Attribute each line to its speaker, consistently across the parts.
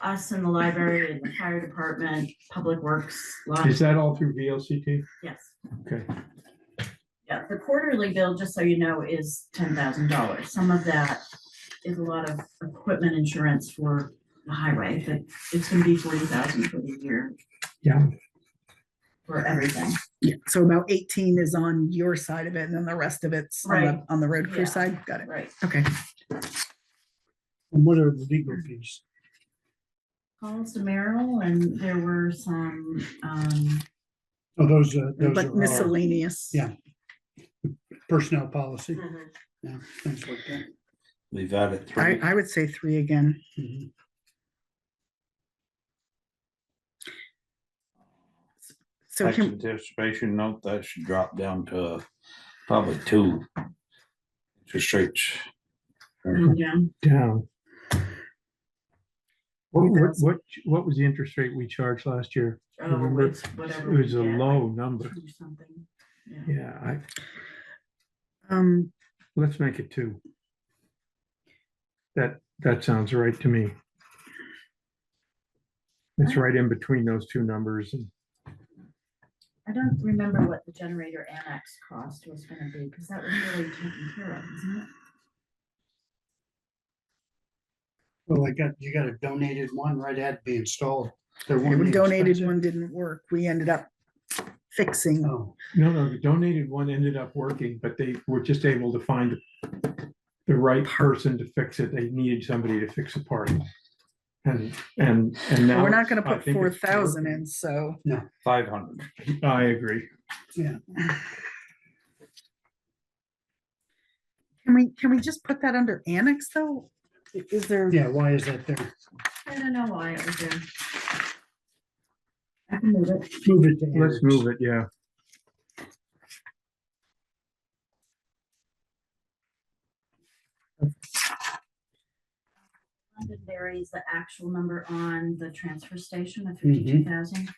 Speaker 1: us and the library and the fire department, public works, law,
Speaker 2: Is that all through VLCT?
Speaker 1: yes.
Speaker 2: Okay.
Speaker 1: Yeah, the quarterly bill, just so you know, is ten thousand dollars. Some of that is a lot of equipment insurance for the highway, but it's gonna be forty thousand for the year.
Speaker 2: Yeah.
Speaker 1: For everything.
Speaker 3: Yeah, so about eighteen is on your side of it, and then the rest of it's on
Speaker 1: Right.
Speaker 3: the, on the road
Speaker 1: Yeah.
Speaker 3: crew side, got it,
Speaker 1: Right.
Speaker 3: okay.
Speaker 4: And what are the legal fees?
Speaker 1: Calls to Merrill and there were some, um,
Speaker 4: Oh, those, uh, those
Speaker 3: But
Speaker 4: are our
Speaker 3: miscellaneous.
Speaker 4: Yeah. personnel policy, yeah, things like that.
Speaker 5: We've added
Speaker 3: I,
Speaker 5: three.
Speaker 3: I would say three again,
Speaker 4: Mhm.
Speaker 3: so
Speaker 5: Tax
Speaker 3: can,
Speaker 5: anticipation note, that should drop down to uh, probably two. Interest rates.
Speaker 1: yeah,
Speaker 2: Down. What, what,
Speaker 3: That's-
Speaker 2: what, what was the interest rate we charged last year?
Speaker 1: oh,
Speaker 2: Remember,
Speaker 1: it's
Speaker 2: It
Speaker 1: whatever. we
Speaker 2: was a
Speaker 1: get,
Speaker 2: low number.
Speaker 1: or Something, yeah.
Speaker 2: Yeah, I,
Speaker 3: um,
Speaker 2: let's make it two. That, that sounds right to me. It's right in between those two numbers and
Speaker 1: I don't remember what the generator annex cost was gonna be, because that was really taken care of, isn't it?
Speaker 4: Well, I got, you got a donated one right at be installed. They're
Speaker 3: yeah,
Speaker 4: one
Speaker 3: we
Speaker 4: of the
Speaker 3: donated
Speaker 4: expensive-
Speaker 3: one didn't work, we ended up fixing,
Speaker 4: Oh,
Speaker 2: No, no, the donated one ended up working, but they were just able to find the right person to fix it. They needed somebody to fix a part. And, and, and
Speaker 3: But
Speaker 2: now.
Speaker 3: we're not gonna
Speaker 2: I
Speaker 3: put
Speaker 2: think
Speaker 3: four
Speaker 2: it's
Speaker 3: thousand in, so,
Speaker 5: Five hundred.
Speaker 2: working. I agree.
Speaker 3: can we, can we just put that under annex though? I- Is there,
Speaker 4: yeah, why is that there?
Speaker 1: I don't know why it was there. I can move it.
Speaker 4: Move it to.
Speaker 2: Let's
Speaker 4: Eric's.
Speaker 2: move it, yeah.
Speaker 1: Londonderry is the actual number on the transfer station of fifty-two thousand.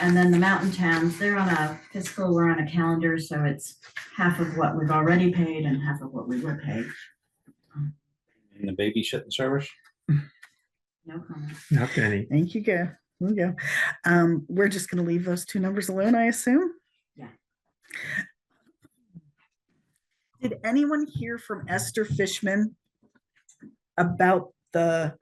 Speaker 1: And then the mountain towns, they're on a fiscal, we're on a calendar, so it's half of what we've already paid and half of what we will pay.
Speaker 5: And the baby shitting service?
Speaker 1: No comment.
Speaker 2: Not any.
Speaker 3: thank you, go, there we go, um, we're just gonna leave those two numbers alone, I assume?
Speaker 1: Yeah.
Speaker 3: Did anyone hear from Esther Fishman about the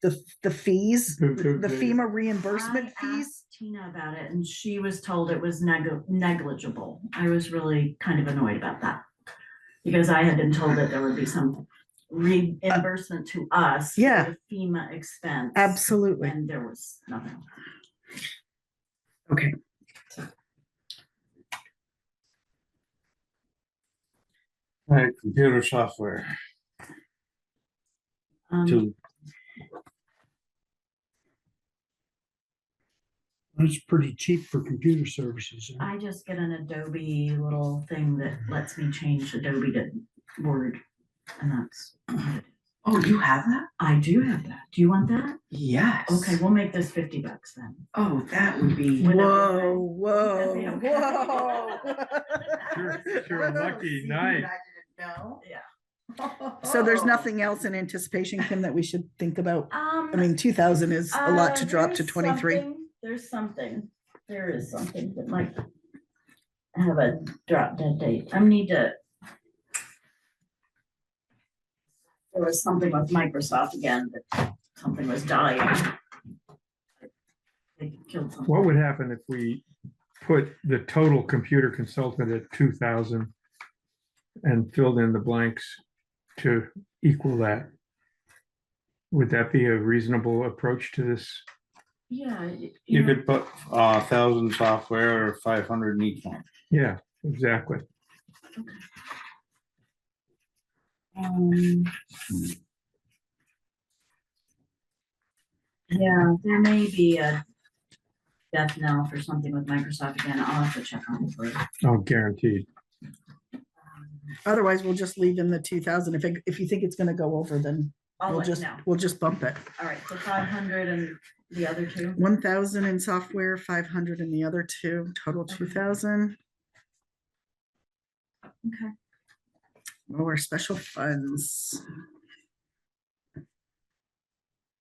Speaker 3: the, the fees,
Speaker 2: Who- who-
Speaker 3: the
Speaker 2: who-
Speaker 3: FEMA reimbursement
Speaker 1: I asked
Speaker 3: fees?
Speaker 1: Tina about it and she was told it was neg- negligible. I was really kind of annoyed about that. Because I had been told that there would be some reimbursement to us. for
Speaker 3: yeah.
Speaker 1: the FEMA expense.
Speaker 3: Absolutely.
Speaker 1: And there was nothing.
Speaker 3: Okay.
Speaker 5: Right, computer software.
Speaker 1: Um,
Speaker 5: Two.
Speaker 4: That's pretty cheap for computer services. huh?
Speaker 1: I just get an Adobe little thing that lets me change Adobe to Word. And that's,
Speaker 6: Oh, you have that?
Speaker 1: I do have that. Do you want that?
Speaker 6: Yes.
Speaker 1: Okay, we'll make this fifty bucks then.
Speaker 6: Oh, that would be,
Speaker 1: Would
Speaker 3: Whoa,
Speaker 1: Would
Speaker 3: whoa,
Speaker 1: that be okay?
Speaker 3: whoa.
Speaker 2: You're you're lucky, nice.
Speaker 6: no?
Speaker 1: Yeah.
Speaker 3: So there's nothing else in anticipation, Kim, that we should think about?
Speaker 1: Um.
Speaker 3: I mean, two thousand is a lot to
Speaker 1: Uh,
Speaker 3: drop
Speaker 1: there's
Speaker 3: to twenty-three.
Speaker 1: something- There's something, there is something that might have a drop dead date. I need to. There was something with Microsoft again, that something was dying. They killed something.
Speaker 2: What would happen if we put the total computer consultant at two thousand and filled in the blanks to equal that? Would that be a reasonable approach to this?
Speaker 1: Yeah. y-
Speaker 5: You
Speaker 1: know,
Speaker 5: could put a thousand software or five hundred in each one.
Speaker 2: Yeah, exactly.
Speaker 1: um, Yeah, there may be a death knell for something with Microsoft again. I'll have to check on it. for you.
Speaker 2: Oh, guaranteed.
Speaker 3: Otherwise, we'll just leave in the two thousand. If, it- if you think it's gonna go over, then
Speaker 1: I'll
Speaker 3: we'll
Speaker 1: let you
Speaker 3: just,
Speaker 1: know.
Speaker 3: we'll just bump it.
Speaker 1: All right, so five hundred and the other two,
Speaker 3: One thousand in software, five hundred in the other two, total
Speaker 1: Okay.
Speaker 3: two thousand.
Speaker 1: Okay.
Speaker 3: Lower special Oh, funds.